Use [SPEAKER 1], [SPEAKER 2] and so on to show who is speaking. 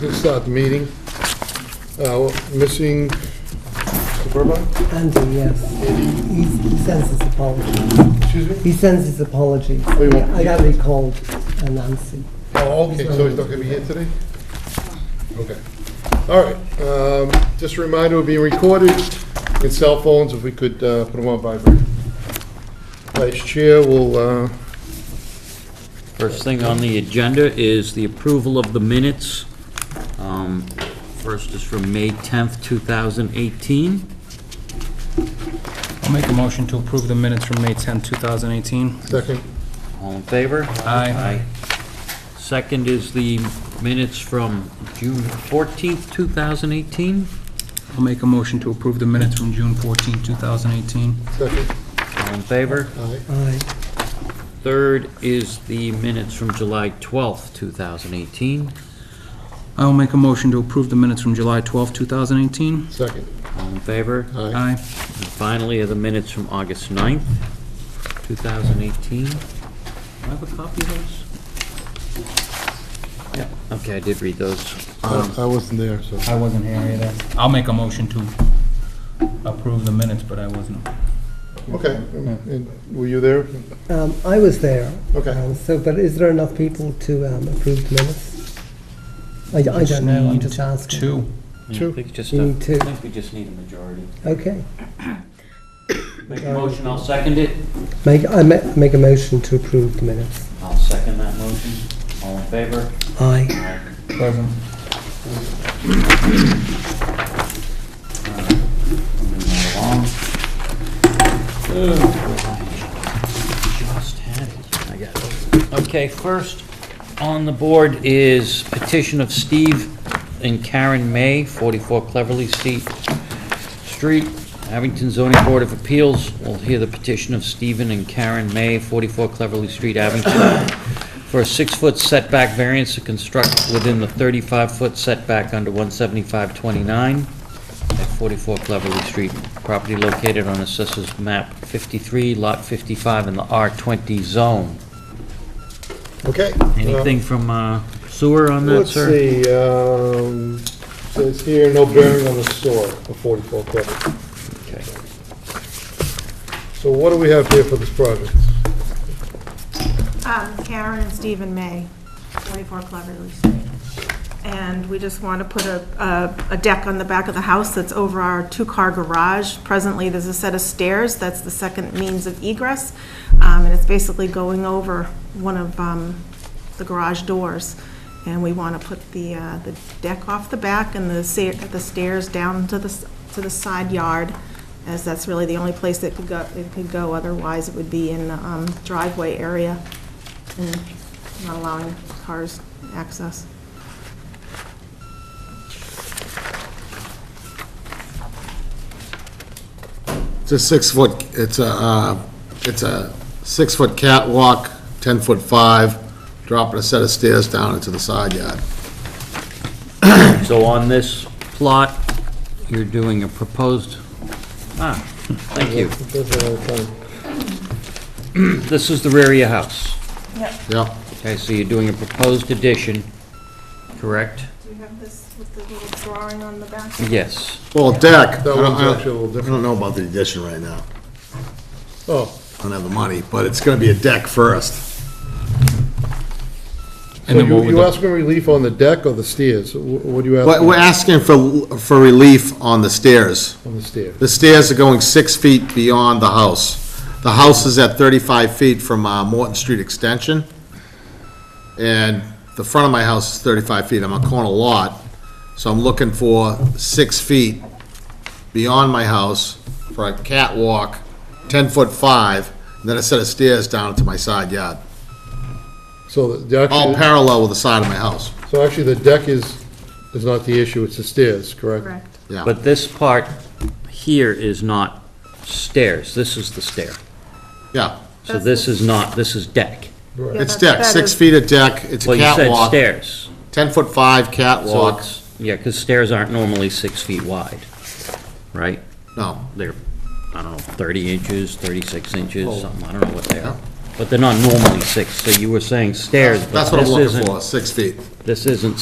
[SPEAKER 1] Let's start the meeting. Uh, Missing Suburban?
[SPEAKER 2] Andy, yes. He he sends his apologies.
[SPEAKER 1] Excuse me?
[SPEAKER 2] He sends his apologies.
[SPEAKER 1] Oh, you want-
[SPEAKER 2] I got recalled, uh, Nancy.
[SPEAKER 1] Oh, okay, so he's not gonna be here today? Okay. All right, um, just a reminder, we're being recorded in cell phones, if we could, uh, put them on vibrate. Vice Chair will, uh,
[SPEAKER 3] First thing on the agenda is the approval of the minutes. Um, First is from May 10th, 2018.
[SPEAKER 4] I'll make a motion to approve the minutes from May 10, 2018.
[SPEAKER 1] second,
[SPEAKER 3] All in favor?
[SPEAKER 4] Aye.
[SPEAKER 3] Second is the minutes from June 14th, 2018.
[SPEAKER 4] I'll make a motion to approve the minutes from June 14, 2018.
[SPEAKER 1] second,
[SPEAKER 3] All in favor?
[SPEAKER 1] aye,
[SPEAKER 2] Aye.
[SPEAKER 3] Third is the minutes from July 12th, 2018.
[SPEAKER 4] I'll make a motion to approve the minutes from July 12, 2018.
[SPEAKER 1] second,
[SPEAKER 3] All in favor?
[SPEAKER 1] aye,
[SPEAKER 4] Aye.
[SPEAKER 3] And finally are the minutes from August 9th, 2018. Do I have a copy of those? Yeah, okay, I did read those.
[SPEAKER 1] I
[SPEAKER 2] Uh,
[SPEAKER 3] Um,
[SPEAKER 1] I wasn't there, so.
[SPEAKER 4] I wasn't here either. I'll make a motion to approve the minutes, but I wasn't.
[SPEAKER 1] Okay, and were you there?
[SPEAKER 2] Um, I was there.
[SPEAKER 1] Okay.
[SPEAKER 2] Um, So, but is there enough people to um, approve the minutes? I I don't know, I'm
[SPEAKER 4] Need
[SPEAKER 2] just asking.
[SPEAKER 4] Two.
[SPEAKER 3] yeah,
[SPEAKER 1] Two.
[SPEAKER 3] I think just,
[SPEAKER 2] You
[SPEAKER 3] a-
[SPEAKER 2] need two.
[SPEAKER 3] I think we just need a majority.
[SPEAKER 2] Okay.
[SPEAKER 3] Make a motion, I'll second it.
[SPEAKER 2] Make, I ma- make a motion to approve the minutes.
[SPEAKER 3] I'll second that motion. All in favor?
[SPEAKER 2] Aye.
[SPEAKER 4] Present.
[SPEAKER 3] Moving right along. Just had it. I got it. Okay, first on the board is petition of Steve and Karen May, 44 Cleverly Street, Street, Abington Zoning Board of Appeals. We'll hear the petition of Stephen and Karen May, 44 Cleverly Street, Abington, for a six-foot setback variance to construct within the 35-foot setback under 17529 at 44 Cleverly Street, property located on Assessors Map 53, Lot 55, in the R20 zone.
[SPEAKER 1] Okay. Um,
[SPEAKER 3] Anything from uh, sewer on that,
[SPEAKER 1] Let's
[SPEAKER 3] sir?
[SPEAKER 1] see, um, says here, no bearing on the store of 44 Clever.
[SPEAKER 3] Okay.
[SPEAKER 1] So what do we have here for this project?
[SPEAKER 5] Um, Karen and Stephen May, 24 Cleverly Street. And we just want to put a- a, a deck on the back of the house that's over our two-car garage. Presently, there's a set of stairs, that's the second means of egress, um, and it's basically going over one of um, the garage doors. And we want to put the, uh, the deck off the back and the sa- the stairs down to the, s- to the side yard, as that's really the only place that could go, it could go, otherwise it would be in the um, driveway area and Mm. not allowing cars access.
[SPEAKER 6] It's a six-foot, it's a, uh, it's a six-foot catwalk, 10-foot five, dropping a set of stairs down into the side yard.
[SPEAKER 3] So on this plot, you're doing a proposed, ah, thank you. This is the rear of your house.
[SPEAKER 6] Yep,
[SPEAKER 3] Okay, so you're doing a proposed addition, correct?
[SPEAKER 5] Do you have this with the little drawing on the back?
[SPEAKER 3] Yes.
[SPEAKER 6] well, deck, I
[SPEAKER 1] That
[SPEAKER 6] don't,
[SPEAKER 1] one's
[SPEAKER 6] I don't-
[SPEAKER 1] actually a little
[SPEAKER 6] I don't know about the addition right now,
[SPEAKER 1] Oh,
[SPEAKER 6] I don't have the money, but it's gonna be a deck first.
[SPEAKER 1] so you you asking relief on the deck or the stairs? Wh- What do you
[SPEAKER 6] But we're
[SPEAKER 1] ask
[SPEAKER 6] asking for, for relief on the stairs.
[SPEAKER 1] on the stairs?
[SPEAKER 6] The stairs are going six feet beyond the house. The house is at 35 feet from uh, Morton Street Extension, and the front of my house is 35 feet. I'm a corner lot, so I'm looking for six feet beyond my house for a catwalk, 10-foot five, and then a set of stairs down to my side yard,
[SPEAKER 1] So the- the,
[SPEAKER 6] all
[SPEAKER 1] actually,
[SPEAKER 6] parallel with the side of my house.
[SPEAKER 1] so actually the deck is, is not the issue, it's the stairs, correct?
[SPEAKER 5] Correct.
[SPEAKER 6] Yeah,
[SPEAKER 3] But this part here is not stairs, this is the stair.
[SPEAKER 6] yeah.
[SPEAKER 3] So this is not, this is deck.
[SPEAKER 5] Yeah,
[SPEAKER 6] It's
[SPEAKER 5] that-
[SPEAKER 6] deck,
[SPEAKER 5] that
[SPEAKER 6] six
[SPEAKER 5] is-
[SPEAKER 6] feet of deck, it's a
[SPEAKER 3] Well, you said
[SPEAKER 6] catwalk,
[SPEAKER 3] stairs.
[SPEAKER 6] 10-foot five
[SPEAKER 3] So
[SPEAKER 6] catwalk,
[SPEAKER 3] it's, yeah, because stairs aren't normally six feet wide, right?
[SPEAKER 6] no.
[SPEAKER 3] They're, I don't know, 30 inches, 36 inches,
[SPEAKER 6] Oh.
[SPEAKER 3] something, I don't know what they are.
[SPEAKER 6] Yeah.
[SPEAKER 3] But they're not normally six, so you were saying stairs, but
[SPEAKER 6] That's what I'm
[SPEAKER 3] this
[SPEAKER 6] looking
[SPEAKER 3] isn't,
[SPEAKER 6] for, six feet.
[SPEAKER 3] this isn't